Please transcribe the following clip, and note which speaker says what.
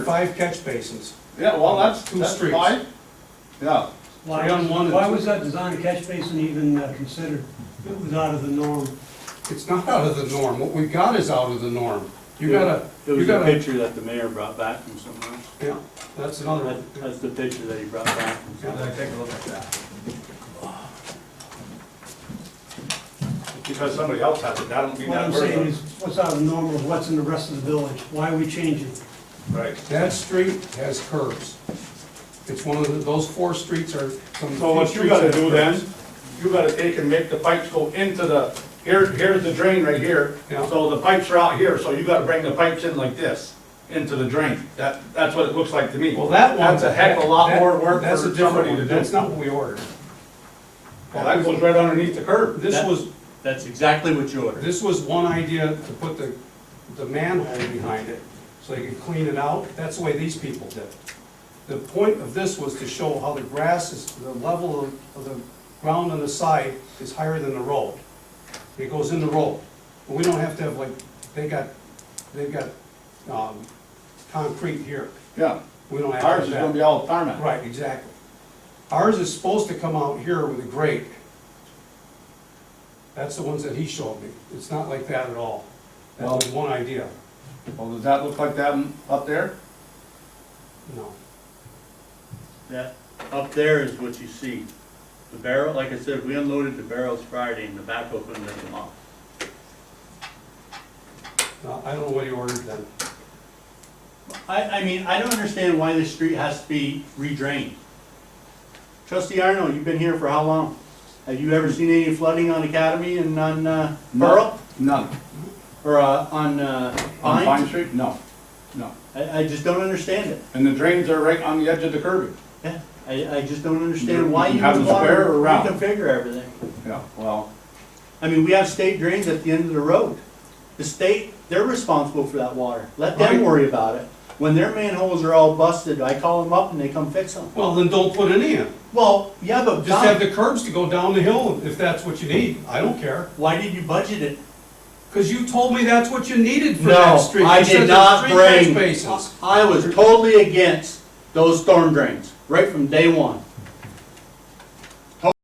Speaker 1: five catch basins.
Speaker 2: Yeah, well, that's,
Speaker 1: Two
Speaker 2: that's
Speaker 1: streets.
Speaker 2: fine. Yeah,
Speaker 3: Why
Speaker 2: Three on
Speaker 3: was,
Speaker 2: one and
Speaker 3: why
Speaker 2: two.
Speaker 3: was that design catch basin even uh, considered? It was out of the norm.
Speaker 1: It's not out of the norm, what we've got is out of the norm. You gotta,
Speaker 4: It
Speaker 1: you
Speaker 4: was a
Speaker 1: gotta,
Speaker 4: picture that the mayor brought back from somewhere.
Speaker 1: yeah, that's another one.
Speaker 4: That- That's the picture that he brought back from
Speaker 1: Yeah.
Speaker 4: somewhere.
Speaker 5: take a look at that.
Speaker 2: because somebody else has it, that don't mean
Speaker 3: What I'm
Speaker 2: that
Speaker 3: saying
Speaker 2: person.
Speaker 3: is, what's out of the norm of what's in the rest of the village? Why are we changing?
Speaker 2: Right.
Speaker 1: That street has curves. It's one of the, those four streets are some of the
Speaker 2: So
Speaker 1: few
Speaker 2: what you
Speaker 1: streets
Speaker 2: gotta
Speaker 1: that have
Speaker 2: do then,
Speaker 1: curves.
Speaker 2: you gotta take and make the pipes go into the, here, here's the drain right here.
Speaker 1: Yeah.
Speaker 2: So the pipes are out here, so you gotta bring the pipes in like this, into the drain. That, that's what it looks like to me.
Speaker 1: Well, that one.
Speaker 2: That's a heck of a lot
Speaker 1: that-
Speaker 2: more work for
Speaker 1: that's a different
Speaker 2: somebody
Speaker 1: one.
Speaker 2: to do.
Speaker 1: That's not what we ordered.
Speaker 2: Well, that goes right underneath the curb.
Speaker 1: This
Speaker 4: That-
Speaker 1: was,
Speaker 4: That's exactly what you ordered.
Speaker 1: this was one idea to put the, the manhole behind it, so they could clean it out. That's the way these people did. it. The point of this was to show how the grass is, the level of, of the ground on the side is higher than the road. It goes in the road. But we don't have to have like, they got, they've got, um, concrete here.
Speaker 2: Yeah,
Speaker 1: We don't have to have
Speaker 2: ours is
Speaker 1: that.
Speaker 2: gonna be all tarmac.
Speaker 1: Right, exactly. Ours is supposed to come out here with a grate. That's the ones that he showed me. It's not like that at all. That was one idea,
Speaker 2: Well, does that look like that up there?
Speaker 1: no.
Speaker 4: That, up there is what you see. The barrel, like I said, we unloaded the barrels Friday and the backhoe couldn't lift them off.
Speaker 1: No, I don't know what he ordered then.
Speaker 4: I, I mean, I don't understand why this street has to be redrained. Trustee Arnold, you've been here for how long? Have you ever seen any flooding on Academy and on, uh,
Speaker 2: No.
Speaker 4: Pearl?
Speaker 2: None.
Speaker 4: Or, uh, on, uh,
Speaker 2: On Pine
Speaker 4: Pines?
Speaker 2: Street? No, no.
Speaker 4: I, I just don't understand it.
Speaker 2: And the drains are right on the edge of the curbing.
Speaker 4: Yeah, I, I just don't understand why
Speaker 2: You
Speaker 4: you
Speaker 2: have
Speaker 4: would
Speaker 2: them
Speaker 4: want to
Speaker 2: square or round?
Speaker 4: reconfigure everything.
Speaker 2: Yeah, well,
Speaker 4: I mean, we have state drains at the end of the road. The state, they're responsible for that water. Let them
Speaker 1: Right.
Speaker 4: worry about it. When their manholes are all busted, I call them up and they come fix them.
Speaker 1: Well, then don't put any in.
Speaker 4: Well, yeah, but
Speaker 1: Just have
Speaker 4: Don,
Speaker 1: the curbs to go down the hill if that's what you need. I don't care.
Speaker 4: why did you budget it?
Speaker 1: Cause you told me that's what you needed for that
Speaker 4: No,
Speaker 1: street.
Speaker 4: I
Speaker 1: You said
Speaker 4: did
Speaker 1: there's
Speaker 4: not
Speaker 1: three catch
Speaker 4: bring,
Speaker 1: Bases.
Speaker 4: I was totally against those storm drains, right from day one.